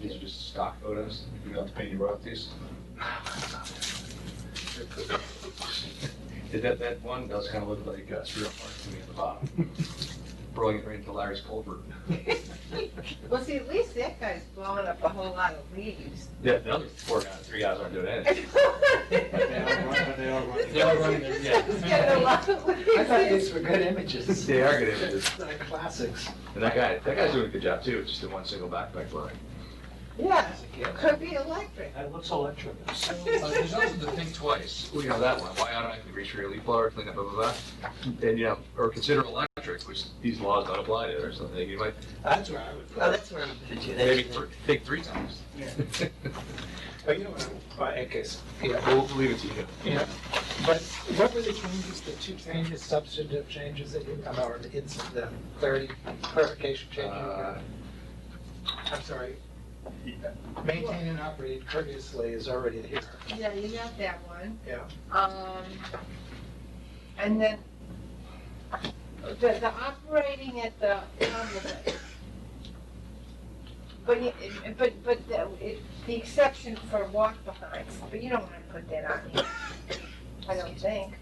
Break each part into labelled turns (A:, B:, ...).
A: These are just stock photos. You don't have to pay any royalties. That, that one does kind of look like uh, Surreal Park to me at the bottom. Throwing it right into Larry's culvert.
B: Well, see, at least that guy's blowing up a whole lot of leaves.
A: Yeah, the other four guys, three guys aren't doing anything.
B: This
C: They are running.
A: They are running their-
B: guy's-
A: yeah.
B: this guy's getting a lot of
C: I thought
B: leaves.
C: these were good images.
A: They are good images.
C: They're classics.
A: And that guy, that guy's doing a good job too, just in one single backpack blowing.
B: Yeah, could be electric.
C: That looks electric.
A: Uh, There's also the think twice, you know, that one, why automatically reach for your leaf blower, clean up, blah, blah, blah. And, you know, or consider electric, which these laws don't apply to or something. You might
C: That's where I would.
B: Oh, that's where I'm.
A: maybe th- think three times.
C: But Oh, you know what, I guess, yeah,
A: We'll leave it to you.
C: yeah. But what were the changes, the two changes, substantive changes that you, I'm, or the ins- the clarity, clarification changes?
A: Uh,
C: I'm sorry. Maintain and operate courteously is already here.
B: Yeah, you got that one.
C: Yeah.
B: Um, and then the, the operating at the, convent. but, you- but, but the, it, the exception for walk behinds, but you don't wanna put that on here. I don't think.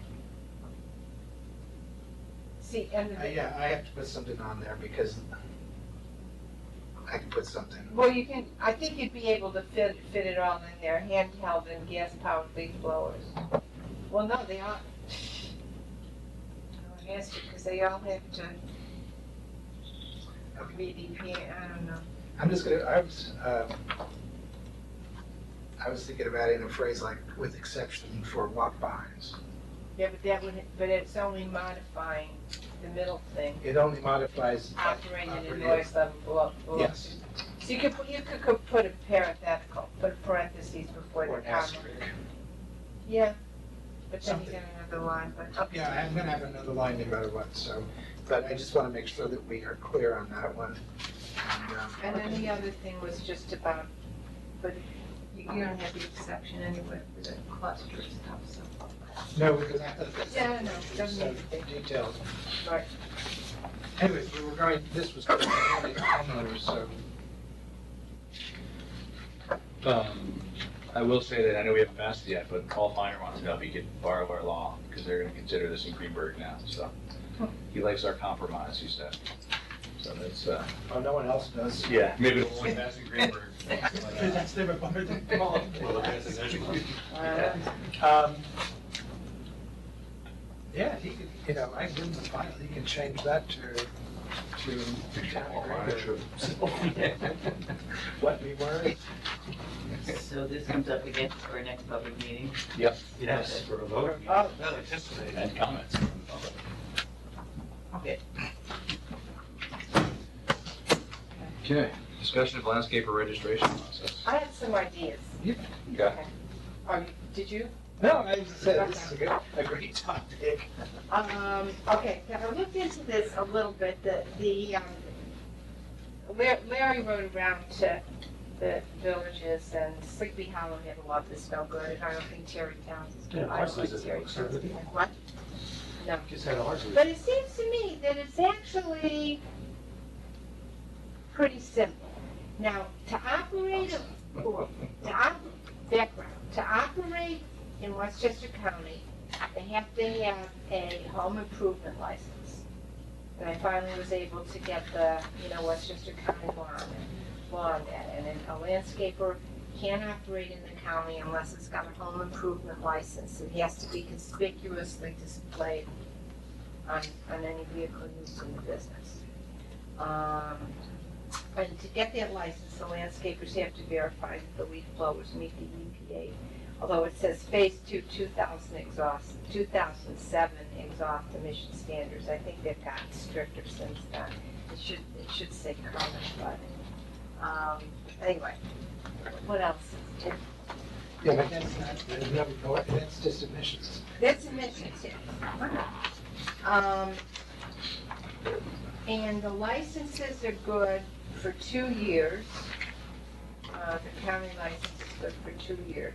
B: See, and
C: Uh,
B: the,
C: Yeah, I have to put something on there because I can put something.
B: well, you can, I think you'd be able to fit, fit it all in there, handheld and gas-powered leaf blowers. Well, no, they all. I guess because they all have to. VDP, I don't know.
C: I'm just gonna, I was, uh, I was thinking of adding a phrase like with exception for walk behinds.
B: Yeah, but that would, but it's only modifying the middle thing,
C: It only modifies.
B: operating in
C: operative.
B: noise level below. below.
C: Yes.
B: So you could, put- you could, could put a parenthetical, put a parentheses before
C: Or
B: the
C: an
B: comma.
C: asterisk.
B: Yeah, but then you
C: Something.
B: get another line, but, okay.
C: Yeah, I'm gonna have another line no matter what, so, but I just wanna make sure that we are clear on that one. And, um,
B: And then the other thing was just about, but you, you don't have the exception anyway for the cluster stuff, so.
C: No, because I thought that.
B: Yeah, no, it doesn't
C: So,
B: need to be.
C: Details.
B: Right.
C: Anyways, we were going, this was going to be homeowners, so.
A: Um, I will say that I know we haven't passed it yet, but Paul Finer wants to know if he could borrow our law, because they're gonna consider this in Greenberg now, so. He likes our compromise, he said. So that's, uh,
C: Oh, no one else does.
A: yeah, maybe it'll only pass in Greenberg.
C: That's never bothered them.
A: Well, it passes everywhere.
B: Uh,
C: Um, Yeah, he could, you know, I give him the file, he can change that to, to town agree
A: Yeah.
C: to what we were.
D: So this comes up again for our next public meeting?
A: Yep.
D: Yes.
C: For a vote. Oh, no, anticipated.
A: And comments from the public.
D: Okay.
A: Okay, discussion of landscaper registration process.
B: I had some ideas.
A: Okay.
B: Are you- did you?
C: No, I said, this is a good, a great topic.
B: Um, okay, now I looked into this a little bit, the, the, um, Lar- Larry rode around to the villages and Sleepy Hollow had a lot that's no good, and I don't think Terry Towns is good. I don't like Terry Towns. What? No.
C: Just had ours.
B: But it seems to me that it's actually pretty simple. Now, to operate a, or, to op, background, to operate in Westchester County, they have to have a home improvement license. And I finally was able to get the, you know, Westchester County law on it, law on that. And then a landscaper can't operate in the county unless it's got a home improvement license. It has to be conspicuously displayed on, on any vehicle used in the business. Um, and to get that license, the landscapers have to verify that the leaf blowers meet the E EPA. Although it says phase two, two thousand exhaust, two thousand seven exhaust emission standards, I think they've gotten stricter since then. It should, it should say current, but, um, anyway, what else?
C: Yeah, but that's not, there's no, no, that's just admissions.
B: That's emissions, yes. Um, and the licenses are good for two years. Uh, the county license is good for two years.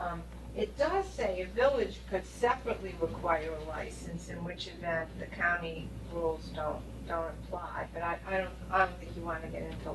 B: Um, it does say a village could separately require a license, in which event the county rules don't, don't apply. But I, I don't, I don't think you wanna get into